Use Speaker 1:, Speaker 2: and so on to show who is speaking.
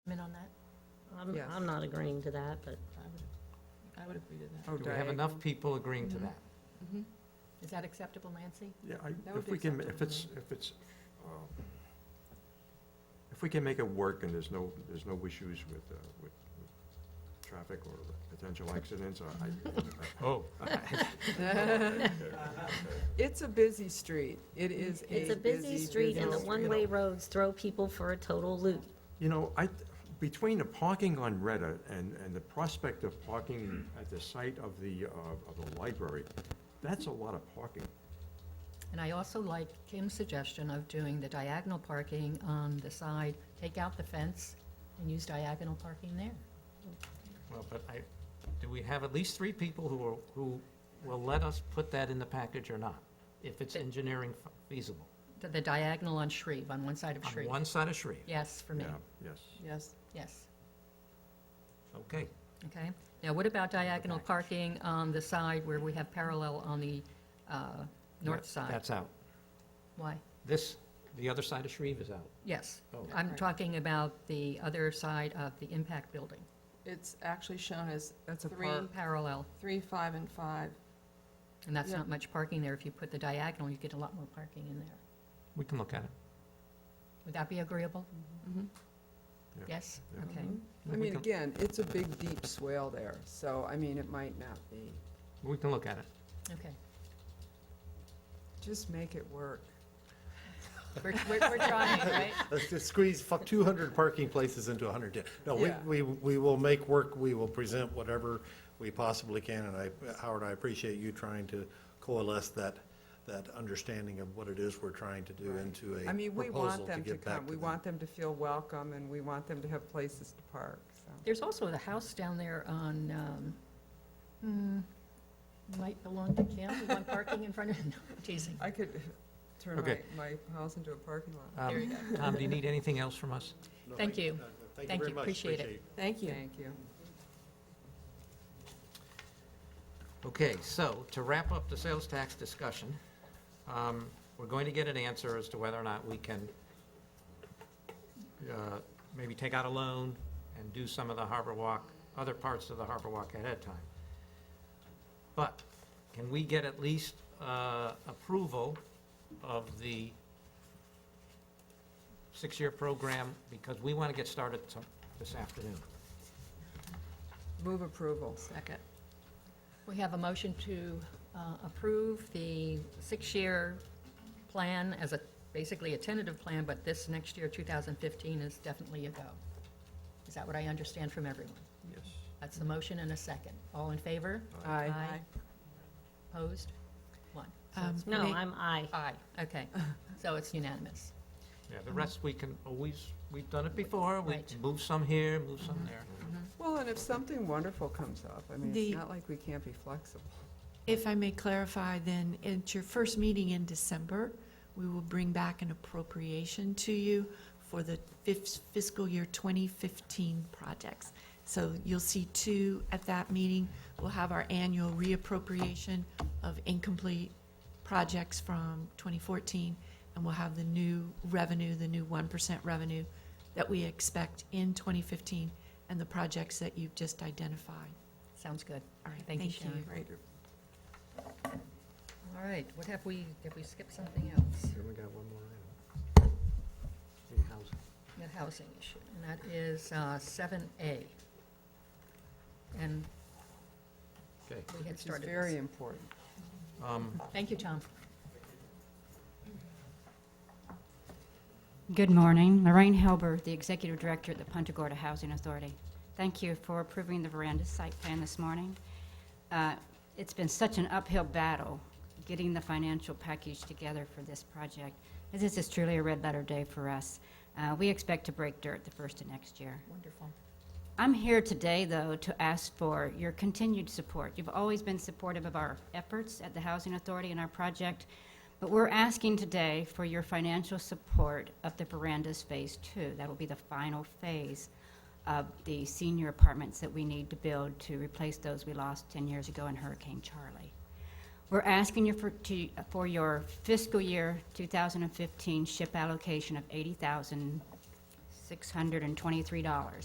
Speaker 1: I'm,
Speaker 2: Yes.
Speaker 1: I'm not agreeing to that, but
Speaker 3: I would, I would agree to that.
Speaker 2: Oh,
Speaker 4: Do we have
Speaker 2: diag-
Speaker 4: enough people agreeing to
Speaker 3: Mhm.
Speaker 4: that?
Speaker 3: Mhm. Is that acceptable, Nancy?
Speaker 5: Yeah, I,
Speaker 3: That would
Speaker 5: if
Speaker 3: be
Speaker 5: we can, ma- if
Speaker 3: acceptable
Speaker 5: it's,
Speaker 3: to
Speaker 5: if it's, um, if we can make it work and there's no, there's no issues with, uh, with with traffic or potential accidents, I, I-
Speaker 4: Oh.
Speaker 2: It's a busy street. It is a busy,
Speaker 1: it's a busy street and the
Speaker 2: busy
Speaker 1: one-way roads throw people for a total loop.
Speaker 5: you know, I, between the parking on Reddit and, and the prospect of parking at the site of the, uh, of the library, that's a lot of parking.
Speaker 3: And I also like Kim's suggestion of doing the diagonal parking on the side, take out the fence and use diagonal parking there.
Speaker 4: Well, but I, do we have at least three people who are, who will let us put that in the package or not? If it's engineering fe- feasible?
Speaker 3: The- The diagonal on Shreve, on one side of
Speaker 4: On
Speaker 3: Shreve.
Speaker 4: one side of Shreve,
Speaker 3: Yes, for me,
Speaker 5: Yeah, yes.
Speaker 2: Yes.
Speaker 3: yes,
Speaker 4: okay.
Speaker 3: okay. Now, what about diagonal
Speaker 4: package.
Speaker 3: parking on the side where we have parallel on the uh, north
Speaker 4: That-
Speaker 3: side?
Speaker 4: That's out.
Speaker 3: Why?
Speaker 4: This, the other side of Shreve is out.
Speaker 3: Yes,
Speaker 4: Oh.
Speaker 3: I'm talking about the other side of the impact building,
Speaker 6: It's actually shown as
Speaker 2: That's a
Speaker 6: three,
Speaker 2: park.
Speaker 3: parallel,
Speaker 6: three, five, and five.
Speaker 3: and that's
Speaker 6: Yeah.
Speaker 3: not much parking there. If you put the diagonal, you get a lot more parking in there.
Speaker 4: We can look at it.
Speaker 3: Would that be agreeable? Mm-hmm.
Speaker 6: Mhm.
Speaker 5: Yeah.
Speaker 3: Yes,
Speaker 5: Yeah.
Speaker 3: okay.
Speaker 2: I
Speaker 4: We
Speaker 2: mean,
Speaker 4: can-
Speaker 2: again, it's a big, deep swale there, so, I mean, it might not be.
Speaker 4: We can look at it.
Speaker 3: Okay.
Speaker 2: Just make it work.
Speaker 3: We're, we're, we're trying, right?
Speaker 7: Let's just squeeze fu- 200 parking places into 110. No, we,
Speaker 2: Yeah.
Speaker 7: we, we will make work, we will present whatever we possibly can, and I, Howard, I appreciate you trying to coalesce that, that understanding of what it is we're trying to do
Speaker 2: Right.
Speaker 7: into a
Speaker 2: I mean, we
Speaker 7: proposal
Speaker 2: want
Speaker 7: to
Speaker 2: them to
Speaker 7: get back
Speaker 2: come.
Speaker 7: to
Speaker 2: We
Speaker 7: them.
Speaker 2: want them to feel welcome and we want them to have places to park, so.
Speaker 3: There's also the house down there on, um, hmm, might belong to Kim, the one parking in front of, no, teasing.
Speaker 2: I could turn my,
Speaker 4: Okay.
Speaker 2: my house into a parking lot.
Speaker 4: Um,
Speaker 3: There you go.
Speaker 4: Tom, do you need anything else from us?
Speaker 7: No,
Speaker 3: Thank you.
Speaker 7: uh,
Speaker 3: Thank
Speaker 7: very
Speaker 3: you.
Speaker 7: much.
Speaker 3: Appreciate it.
Speaker 6: Thank you.
Speaker 2: Thank you.
Speaker 4: Okay, so to wrap up the sales tax discussion, um, we're going to get an answer as to whether or not we can uh, maybe take out a loan and do some of the Harbor Walk, other parts of the Harbor Walk ahead of time. But can we get at least uh, approval of the six-year program? Because we want to get started to- this afternoon.
Speaker 2: Move approval.
Speaker 6: Second.
Speaker 3: We have a motion to uh, approve the six-year plan as a, basically a tentative plan, but this next year, 2015, is definitely a go. Is that what I understand from everyone?
Speaker 5: Yes.
Speaker 3: That's the motion and a second. All in favor?
Speaker 2: Aye.
Speaker 3: Opposed? One.
Speaker 2: Um,
Speaker 1: No, I'm I.
Speaker 3: Aye, okay. So it's unanimous.
Speaker 4: Yeah, the rest, we can always, we've done it before, we
Speaker 3: Right.
Speaker 4: move some here, move some there.
Speaker 2: Well, and if something wonderful comes up, I mean,
Speaker 8: The-
Speaker 2: it's not like we can't be flexible.
Speaker 8: If I may clarify, then, at your first meeting in December, we will bring back an appropriation to you for the fif- fiscal year 2015 projects. So you'll see two at that meeting. We'll have our annual reappropriation of incomplete projects from 2014, and we'll have the new revenue, the new 1% revenue that we expect in 2015, and the projects that you've just identified.
Speaker 3: Sounds good.
Speaker 8: All right,
Speaker 3: Thank you,
Speaker 8: thank you.
Speaker 3: Sharon.
Speaker 2: Thank you.
Speaker 3: All right, what have we, have we skipped something else?
Speaker 4: Then we got one more item. The housing.
Speaker 3: The housing issue, and that is uh, 7A. And
Speaker 4: Okay.
Speaker 3: we had
Speaker 2: Which is
Speaker 3: started
Speaker 2: very
Speaker 3: this.
Speaker 2: important.
Speaker 4: Um,
Speaker 3: Thank you, Tom.
Speaker 9: Good morning. Lorraine Hilbert, the Executive Director at the Punta Gorda Housing Authority. Thank you for approving the veranda site plan this morning. Uh, It's been such an uphill battle getting the financial package together for this project. This is truly a red letter day for us. Uh, We expect to break dirt the first of next year.
Speaker 3: Wonderful.
Speaker 9: I'm here today, though, to ask for your continued support. You've always been supportive of our efforts at the Housing Authority and our project, but we're asking today for your financial support of the verandas Phase Two. That'll be the final phase of the senior apartments that we need to build to replace those we lost 10 years ago in Hurricane Charlie. We're asking you for, to, for your fiscal year 2015 ship allocation of $80,623.